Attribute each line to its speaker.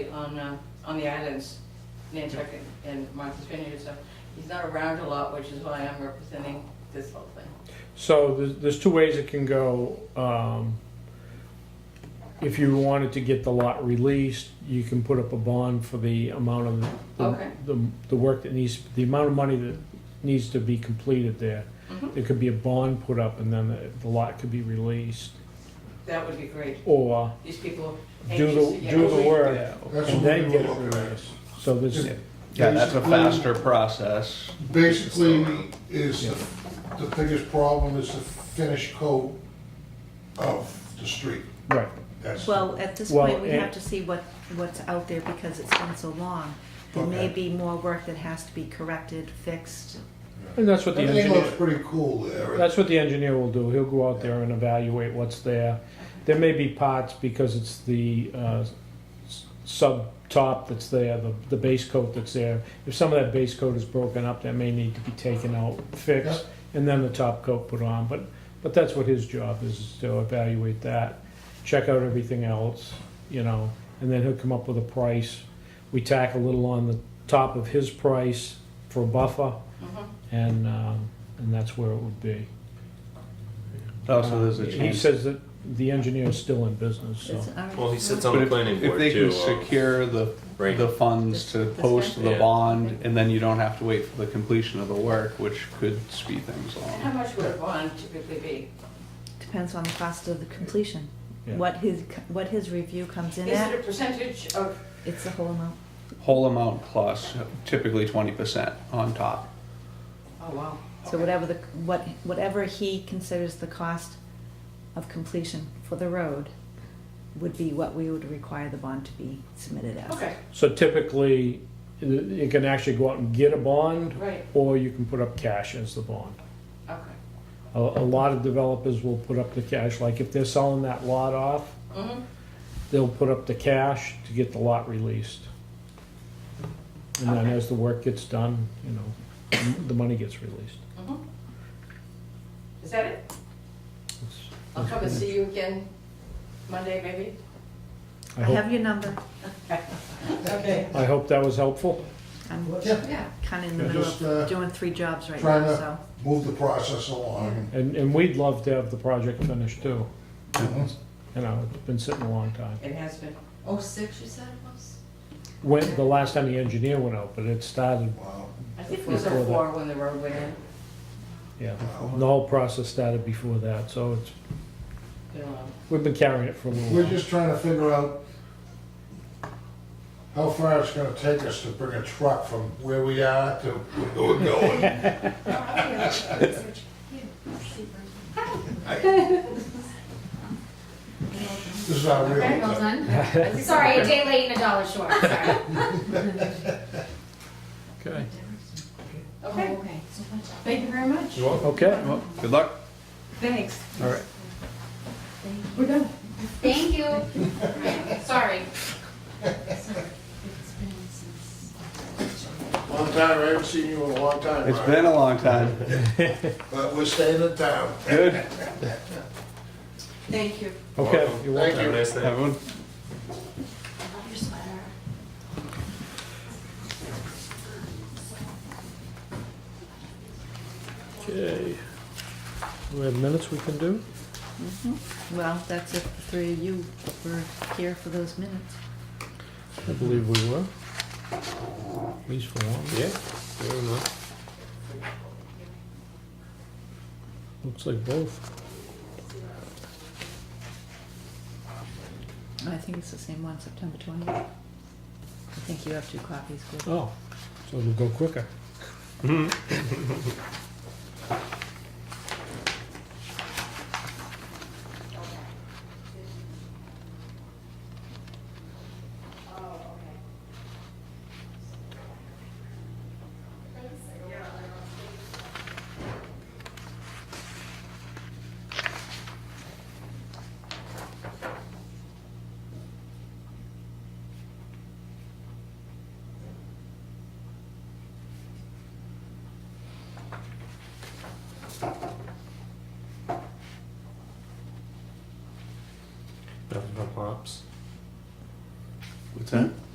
Speaker 1: on, uh, on the islands, Nantucket and Martha's Vineyard, so he's not around a lot, which is why I'm representing this whole thing.
Speaker 2: So there's, there's two ways it can go. Um, if you wanted to get the lot released, you can put up a bond for the amount of the,
Speaker 1: Okay.
Speaker 2: the, the work that needs, the amount of money that needs to be completed there.
Speaker 1: Mhm.
Speaker 2: There could be a bond put up and then the, the lot could be released
Speaker 1: That would be great.
Speaker 2: or
Speaker 1: These people
Speaker 2: do
Speaker 1: anxious to
Speaker 2: the,
Speaker 1: get.
Speaker 2: do the work
Speaker 3: Yeah,
Speaker 4: That's
Speaker 2: and
Speaker 4: what we
Speaker 2: then
Speaker 4: were
Speaker 2: get it
Speaker 4: looking at.
Speaker 2: released. So there's,
Speaker 4: Yeah.
Speaker 3: Yeah, that's a
Speaker 4: Basically-
Speaker 3: faster process.
Speaker 4: Basically, is the, the biggest problem is the finish coat of the street.
Speaker 2: right.
Speaker 4: That's,
Speaker 5: Well, at this
Speaker 2: Well,
Speaker 5: point, we
Speaker 2: and-
Speaker 5: have to see what, what's out there because it's been so long. There may
Speaker 4: Okay.
Speaker 5: be more work that has to be corrected, fixed.
Speaker 2: And that's what the
Speaker 4: everything
Speaker 2: engineer,
Speaker 4: looks pretty cool there.
Speaker 2: That's what the engineer will do. He'll go out there and evaluate what's there. There may be parts because it's the uh, s- sub top that's there, the, the base coat that's there. If some of that base coat is broken up, that may need to be taken out, fixed, and then the top coat put on. But, but that's what his job is, is to evaluate that, check out everything else, you know, and then he'll come up with a price. We tack a little on the top of his price for a buffer,
Speaker 1: Mhm.
Speaker 2: and, um, and that's where it would be.
Speaker 3: Also, Oh, there's a
Speaker 2: He
Speaker 3: chance.
Speaker 2: says that the engineer is still in business, so.
Speaker 5: It's uh, already-
Speaker 6: Well, he sits
Speaker 3: But
Speaker 6: on the
Speaker 3: if-
Speaker 6: planning
Speaker 3: If
Speaker 6: board
Speaker 3: they
Speaker 6: too. uh,
Speaker 3: can secure the,
Speaker 6: right.
Speaker 3: the funds to
Speaker 5: This- this
Speaker 3: post
Speaker 5: guy?
Speaker 3: the
Speaker 6: Yeah.
Speaker 3: bond, and then you don't have to wait for the completion of the work, which could speed things
Speaker 1: And How
Speaker 3: along.
Speaker 1: much would a bond typically be?
Speaker 5: Depends on the cost of the completion.
Speaker 2: Yeah.
Speaker 5: What his, what his review comes in
Speaker 1: Is it a
Speaker 5: at,
Speaker 1: percentage of,
Speaker 5: it's the whole amount.
Speaker 3: Whole amount plus typically twenty percent on top.
Speaker 1: oh wow.
Speaker 5: So whatever the, what, whatever he considers the cost of completion for the road would be what we would require the bond to be submitted as.
Speaker 1: Okay,
Speaker 2: So typically, i- you can actually go out and get a bond,
Speaker 1: right,
Speaker 2: or you can put up cash as the bond.
Speaker 1: okay.
Speaker 2: A, a lot of developers will put up the cash, like if they're selling that lot off,
Speaker 1: Mhm.
Speaker 2: they'll put up the cash to get the lot released. And then
Speaker 1: Okay.
Speaker 2: as the work gets done, you know, the money gets released.
Speaker 1: Mhm. Is that it?
Speaker 2: It's-
Speaker 1: I'll come and see you again Monday, maybe?
Speaker 2: I
Speaker 5: I
Speaker 2: hope,
Speaker 5: have your number.
Speaker 1: Okay.
Speaker 2: I hope that was helpful.
Speaker 5: I'm
Speaker 4: Yeah,
Speaker 1: Yeah,
Speaker 5: kinda in the
Speaker 4: Yeah,
Speaker 5: middle
Speaker 4: just, uh,
Speaker 5: of doing three jobs right
Speaker 4: trying
Speaker 5: now,
Speaker 4: to-
Speaker 5: so.
Speaker 4: move the process along.
Speaker 2: And, and we'd love to have the project finished too,
Speaker 4: Mhm.
Speaker 2: you know, it's been sitting a long time.
Speaker 1: it has been.
Speaker 7: Oh, six, you said it was?
Speaker 2: When, the last time the engineer went out, but it started,
Speaker 4: Wow,
Speaker 1: I think it was
Speaker 2: Before
Speaker 1: a
Speaker 2: that.
Speaker 1: four when the road went in,
Speaker 2: yeah,
Speaker 4: wow.
Speaker 2: the whole process started before that, so it's,
Speaker 1: you know.
Speaker 2: we've been carrying it for a little
Speaker 4: We're
Speaker 2: while.
Speaker 4: just trying to figure out how far it's gonna take us to bring a truck from where we are to where we're going. This is our real.
Speaker 7: Okay, well done. Sorry, a day late and a dollar short. Sorry.
Speaker 3: Okay.
Speaker 1: Okay,
Speaker 7: okay. So much.
Speaker 1: thank you very much.
Speaker 2: Okay,
Speaker 3: Well, good luck.
Speaker 1: Thanks.
Speaker 3: All right.
Speaker 1: We're done.
Speaker 7: Thank you. Sorry. Sorry. It's been since-
Speaker 4: Long time, I haven't seen you in a long time.
Speaker 3: It's
Speaker 4: Ryan.
Speaker 3: been a long time.
Speaker 4: But we're staying in town.
Speaker 3: Good.
Speaker 1: Thank you.
Speaker 2: okay, you're welcome.
Speaker 6: Have a nice day.
Speaker 3: Everyone,
Speaker 7: I love your sweater.
Speaker 2: Okay. Do we have minutes we can do?
Speaker 5: Well, that's if the three of you were here for those minutes.
Speaker 2: I believe we were. At least for one.
Speaker 6: Yeah. Fair enough.
Speaker 2: Looks like both.
Speaker 5: I think it's the same one, September twentieth. I think you have two copies, Gordon.
Speaker 2: Oh, so it'll go quicker.
Speaker 6: Nothing but pops.
Speaker 3: what's that?